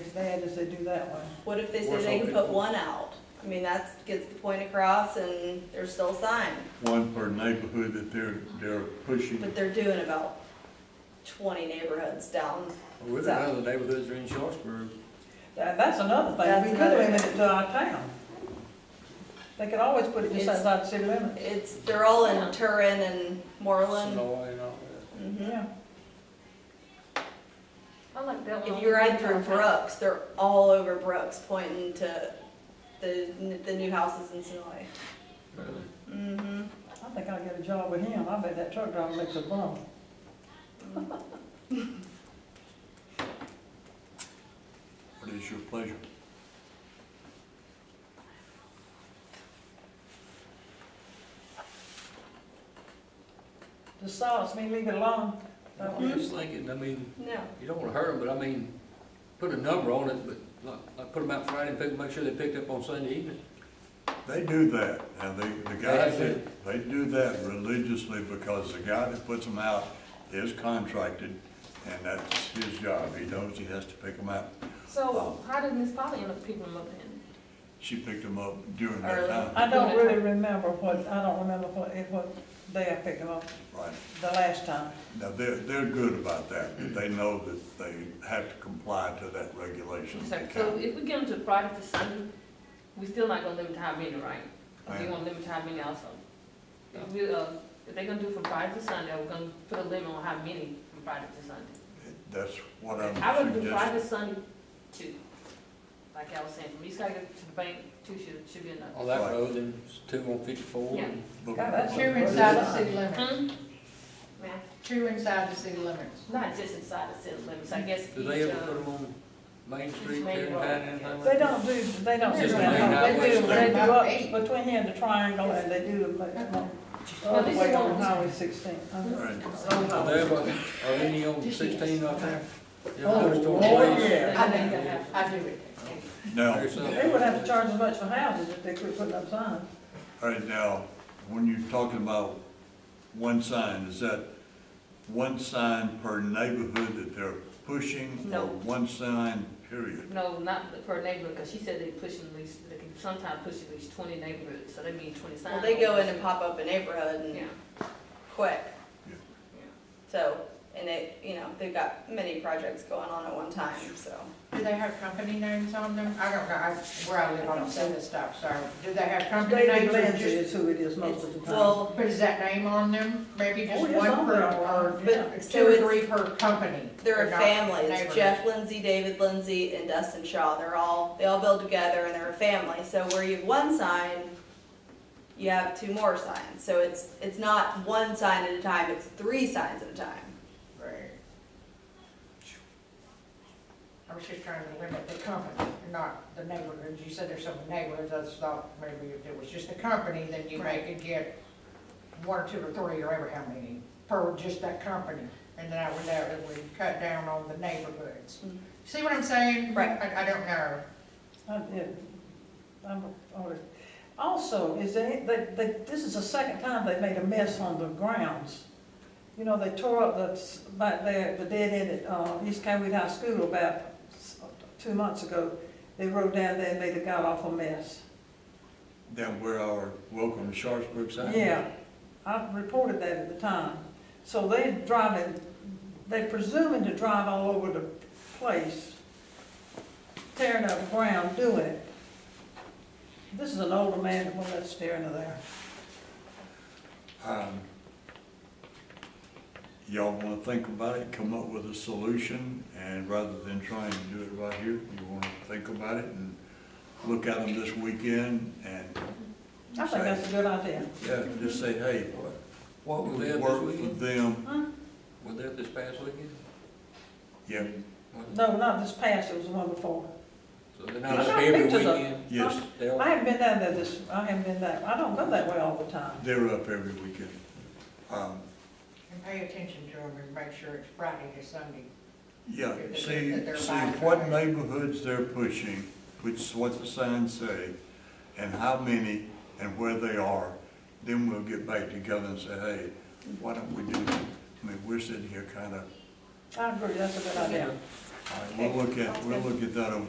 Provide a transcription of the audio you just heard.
as bad as they do that one. What if they say Or they can put something. one out? I mean, that's, gets the point across and they're still signed, one per neighborhood that they're, they're pushing. but they're doing about twenty neighborhoods down. Well, So- none of the neighborhoods are in Sharpsburg. That, that's another thing, That's we could another limit thing. it to our town. They could always put it just It's- outside the city limits. It's, they're all in Turin and Moreland. Sonora and all that. Mhm. Yeah, I like that one. If you ride through Brooks, they're all over Brooks pointing to the, the new houses in Sonoy. Mm-hmm. I think I'll get a job with him, I bet that truck driver makes a bum. What is your pleasure? The solace, me leave it alone. I'm just thinking, I mean, No. you don't wanna hurt them, but I mean, put a number on it, but like, like put them out Friday and pick, make sure they picked up on Sunday evening. They do that, now they, the guys They do. that, they do that religiously because the guy that puts them out is contracted and that's his job, he knows he has to pick them out. So how did Miss Polly end up picking them up then? She picked them up during that Early. time, I don't really remember what, I don't remember what, it what day I picked him up, right? the last time. Now, they're, they're good about that, they know that they have to comply to that regulation. of the So county. if we get them to Friday to Sunday, we still not gonna limit how many, right? Or we Ma'am. gonna limit how many also? If we, uh, if they gonna do from Friday to Sunday, we're gonna put a limit on how many from Friday to Sunday. That's what I'm I would do suggesting. Friday to Sunday two, like I was saying, from East Tiger to the bank, two should, should be enough. On that Right. road, then it's two on fifty-four. and- But- God, that's True What is inside it? the city limits, Hmm? Ma'am, true inside the city limits. not just inside the city limits, I guess Do they each, ever uh, put them on Main Street, Main Tarrentine, Road, anything like that? They don't do, they don't do Just that, they do, like they do nine up ways. between here and the triangle, and they do Oh, them, all this the is way one. on Highway sixteen. Uh-huh. Right. Are they ever, are any on sixteen up there? You ever Oh, noticed on Oh, Blaze? yeah. I think I have, I do it. Now, There's some- They would have to charge as much for houses if they quit putting up signs. All right, now, when you're talking about one sign, is that one sign per neighborhood that they're pushing? No. Or one sign, period? No, not per neighborhood, because she said they push at least, they can sometimes push at least twenty neighborhoods, so they mean twenty signs. Well, they go in and pop up a neighborhood Yeah, and quick. Yeah. So, and they, you know, they've got many projects going on at one time, so. Do they have company names on them? I don't know, I, where I live, I don't see this stuff, so, do they have company David names or Lindsay just, is who it is most of the time. Well, but is that name on them? Maybe Oh, just yes, one on per, there. or But- so two or it's- three per company? they're a not family. It's neighborhood. Jeff Lindsay, David Lindsay, and Dustin Shaw. They're all, they all build together and they're a family. So where you have one sign, you have two more signs. So it's, it's not one sign at a time, it's three signs at a time. Right. I was just trying to limit the company, not the neighborhoods, you said there's some neighborhoods, I just thought maybe if it was just the company, then you may could get one, or two, or three, or ever how many, per just that company, and then I would, that would cut down on the neighborhoods. Mhm. See what I'm saying? Right. I, I don't know. I did. I'm always- Also, is there, any- they, they, this is the second time they made a mess on the grounds. You know, they tore up the, s- back there, the dead end at, uh, East Cambridge High School about s- two months ago. They rode down there and made a god awful mess. Then where our welcome to Sharpsburg sign? Yeah, I reported that at the time. So they driving, they presuming to drive all over the place, tearing up ground, doing it. This is an older man, the one that's staring to there. Um, Y'all wanna think about it, come up with a solution, and rather than trying to do it right here, you wanna think about it and look at them this weekend and, I think that's a good idea. yeah, just say, hey, What what was would that this work for weekend? them? Was that this past weekend? Yeah, Was it? No, not this past, it was the one before. So they're I not saw up every pictures of- weekend? yes, They all- I haven't been down there this, I haven't been that, I don't go that way all the time. They're up every weekend. Um, And pay attention to them and make sure it's Friday to Sunday. Yeah, That see, they're see live. what neighborhoods they're pushing, which is what the signs say, and how many and where they are. Then we'll get back together and say, hey, why don't we do, I mean, we're sitting here kind of, I agree, that's a good idea. All right, We'll look at, we'll look at that over